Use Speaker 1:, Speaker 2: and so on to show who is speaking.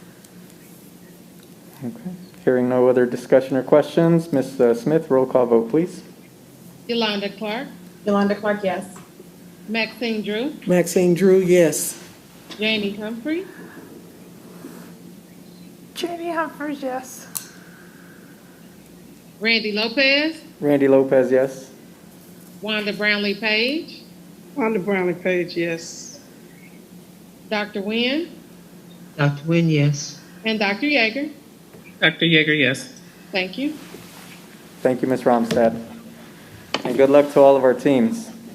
Speaker 1: Hearing no other discussion or questions, Ms. uh, Smith, roll call vote, please.
Speaker 2: Yolanda Clark,
Speaker 3: Yolanda Clark, yes.
Speaker 2: Maxine Drew,
Speaker 4: Maxine Drew, yes.
Speaker 2: Jamie Humphrey,
Speaker 5: Jamie Humphries, yes.
Speaker 2: Randy Lopez,
Speaker 1: Randy Lopez, yes.
Speaker 2: Wanda Brownlee Page,
Speaker 6: Wanda Brownlee Page, yes.
Speaker 2: Dr. Nguyen,
Speaker 7: Dr. Nguyen, yes.
Speaker 2: and Dr. Yeager.
Speaker 6: Dr. Yeager, yes.
Speaker 2: Thank you.
Speaker 1: Thank you, Ms. Romstad. And good luck to all of our teams.